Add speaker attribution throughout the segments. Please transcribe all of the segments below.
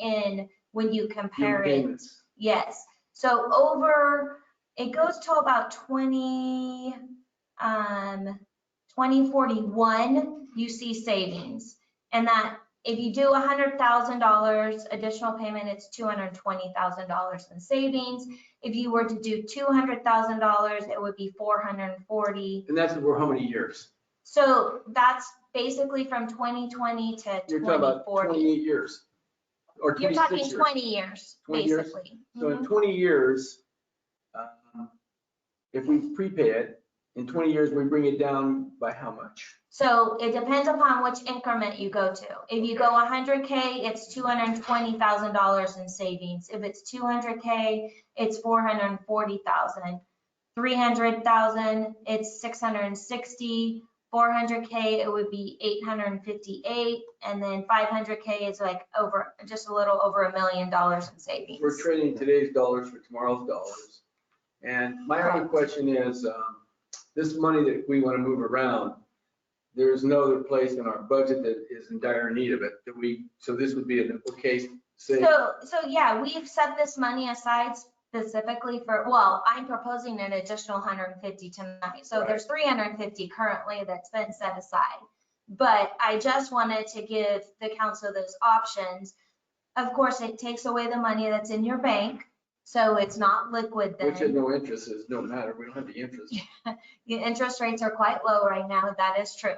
Speaker 1: in when you compare
Speaker 2: Your
Speaker 1: it.
Speaker 2: payments.
Speaker 1: Yes, so over, it goes to about twenty, um, twenty forty-one, you see savings. And that, if you do hundred thousand dollars additional payment, it's two hundred twenty thousand dollars in savings. If you were to do two hundred thousand dollars, it would be four hundred and forty.
Speaker 2: And that's over how many years?
Speaker 1: So that's basically from twenty twenty to
Speaker 2: You're talking
Speaker 1: twenty
Speaker 2: about
Speaker 1: forty.
Speaker 2: twenty-eight years. Or
Speaker 1: You're
Speaker 2: twenty-six
Speaker 1: talking
Speaker 2: years.
Speaker 1: twenty years,
Speaker 2: 20 years?
Speaker 1: basically.
Speaker 2: So
Speaker 1: Mhm.
Speaker 2: in twenty years, um, if we prepay it, in twenty years, we bring it down by how much?
Speaker 1: So it depends upon which increment you go to. If you go 100K, it's $220,000 in savings. If it's 200K, it's 440,000. 300,000, it's 660. 400K, it would be 858. And then 500K is like over, just a little over a million dollars in savings.
Speaker 2: We're trading today's dollars for tomorrow's dollars. And my only
Speaker 1: Correct.
Speaker 2: question is, um, this money that we want to move around, there's no other place in our budget that is in dire need of it, that we, so this would be an okay, say,
Speaker 1: So, so yeah, we've set this money aside specifically for, well, I'm proposing an additional hundred and fifty tonight. So
Speaker 2: Right.
Speaker 1: there's three hundred and fifty currently that's been set aside. But I just wanted to give the council those options. Of course, it takes away the money that's in your bank, so it's not liquid
Speaker 2: which is
Speaker 1: then.
Speaker 2: no interest, is no matter, we don't have the interest.
Speaker 1: The interest rates are quite low right now, that is true.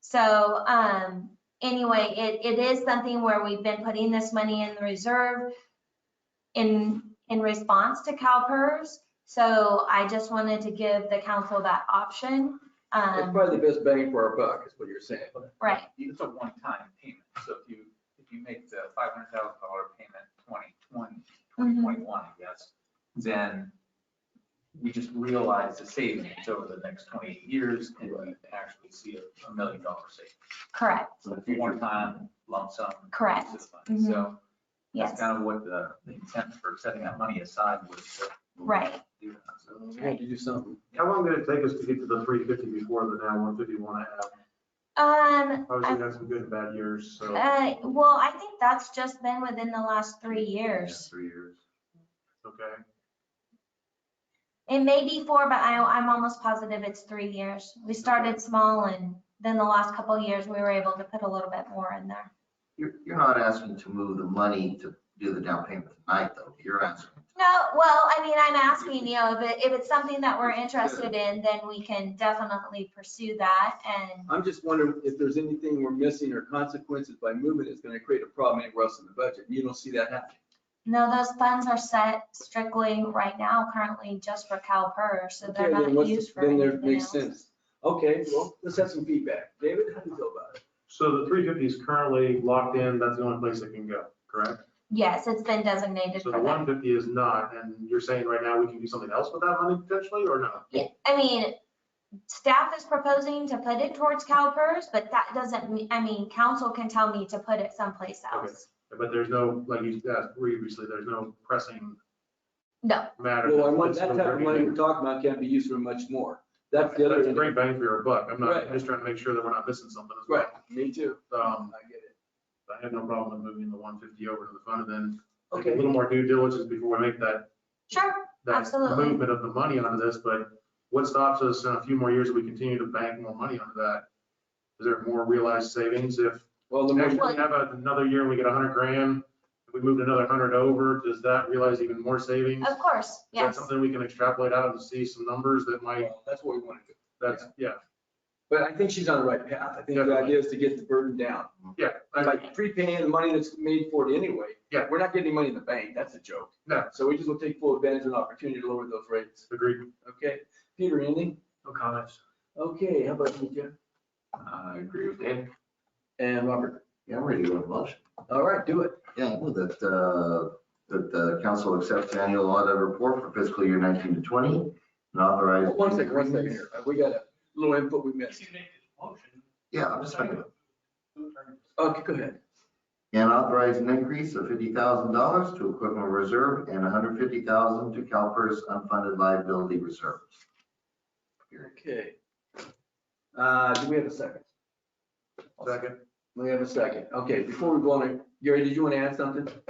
Speaker 1: So, um, anyway, it, it is something where we've been putting this money in the reserve in, in response to CalPERS. So I just wanted to give the council that option.
Speaker 2: It's
Speaker 1: Um,
Speaker 2: probably the best bang for our buck, is what you're saying.
Speaker 1: Right.
Speaker 3: It's a one-time payment, so if you, if you make the five hundred thousand dollar payment 2020,
Speaker 1: Mm-hmm.
Speaker 3: 2021, I guess, then we just realize the savings over the next 28 years and we actually see a- a million dollar savings.
Speaker 1: correct,
Speaker 3: So it's a one-time lump sum.
Speaker 1: Correct. Mm-hmm.
Speaker 3: piece of money. So that's
Speaker 1: yes,
Speaker 3: kind of what the the intent for setting that money aside was. to
Speaker 1: right.
Speaker 3: do that. So
Speaker 2: We have to do something.
Speaker 4: How long did it take us to get to the three fifty before the now one fifty one half?
Speaker 1: Um,
Speaker 4: Obviously, we had some good and bad years, so.
Speaker 1: uh, well, I think that's just been within the last three years.
Speaker 3: Three years.
Speaker 4: Okay,
Speaker 1: It may be four, but I, I'm almost positive it's three years. We started small and then the last couple of years, we were able to put a little bit more in there.
Speaker 5: You're, you're not asking to move the money to do the down payment tonight, though. You're asking.
Speaker 1: No, well, I mean, I'm asking, you know, if it, if it's something that we're interested in, then we can definitely pursue that and
Speaker 2: I'm just wondering if there's anything we're missing or consequences by moving that's gonna create a problem anywhere else in the budget. You don't see that happening.
Speaker 1: No, those funds are set strictly right now, currently just for CalPERS, so they're
Speaker 2: Okay, then
Speaker 1: not
Speaker 2: what's-
Speaker 1: used for
Speaker 2: Then there
Speaker 1: anything
Speaker 2: makes
Speaker 1: else.
Speaker 2: sense. Okay, well, let's have some feedback. David, how do you feel about it?
Speaker 4: so the three fifty is currently locked in, that's the only place it can go, correct?
Speaker 1: Yes, it's been designated
Speaker 4: So
Speaker 1: for
Speaker 4: the
Speaker 1: that.
Speaker 4: one fifty is not, and you're saying right now we can do something else with that money potentially, or no?
Speaker 1: Yeah, I mean, staff is proposing to put it towards CalPERS, but that doesn't, mean- I mean, council can tell me to put it someplace
Speaker 4: Okay.
Speaker 1: else.
Speaker 4: But there's no, like you asked previously, there's no pressing
Speaker 1: No,
Speaker 4: matter.
Speaker 2: Well, I want
Speaker 4: that's
Speaker 2: that
Speaker 4: still
Speaker 2: type of
Speaker 4: very
Speaker 2: money
Speaker 4: good.
Speaker 2: we're talking about can't be used for much more. That's the
Speaker 4: That's a
Speaker 2: other.
Speaker 4: great bang for your buck, I'm not,
Speaker 2: Right.
Speaker 4: I'm just trying to make sure that we're not missing something as well.
Speaker 2: Right, me too.
Speaker 4: Um,
Speaker 2: I get it.
Speaker 4: I have no problem with moving the one fifty over to the fund and then like, a
Speaker 2: Okay,
Speaker 4: little more due diligence before we make that
Speaker 1: sure,
Speaker 4: that
Speaker 1: Absolutely.
Speaker 4: movement of the money onto this, but what stops us in a few more years if we continue to bank more money onto that? Is there more realized savings if,
Speaker 2: well, the
Speaker 4: actually,
Speaker 2: more,
Speaker 4: we have another year and we get a hundred grand, if we moved another hundred over, does that realize even more savings?
Speaker 1: of course,
Speaker 4: Is that
Speaker 1: Oh, yes.
Speaker 4: something we can extrapolate out and see some numbers that might,
Speaker 2: well, that's what we want to do.
Speaker 4: that's, yeah,
Speaker 2: But I think she's on the right path. I think the
Speaker 4: Definitely.
Speaker 2: idea is to get the burden down.
Speaker 4: yeah. I-
Speaker 2: By prepaying the money that's made for it anyway.
Speaker 4: Yeah.
Speaker 2: We're not getting any money in the bank. That's a joke.
Speaker 4: No.
Speaker 2: So we just will take full advantage of the opportunity to lower those rates.
Speaker 4: Agreed.
Speaker 2: Okay, Peter, anything?
Speaker 4: No comments.
Speaker 2: Okay, how about you, Jeff?
Speaker 3: I agree with Dave.
Speaker 2: And Robert?
Speaker 5: Yeah, I'm ready to go to motion.
Speaker 2: All right, do it.
Speaker 5: Yeah, I move that, uh, that the council accepts the annual audit report for fiscal year 19 to 20 and authorize.
Speaker 2: One second, one second here. We got a little input we missed.
Speaker 5: Yeah, I'm just making it.
Speaker 2: Okay, go ahead.
Speaker 5: And authorize an increase of $50,000 to equipment reserve and $150,000 to CalPERS unfunded liability reserve.
Speaker 2: Okay. Uh, do we have a second?
Speaker 4: Second.
Speaker 2: We have a second. Okay, before we go on, Gary, did you want to add something?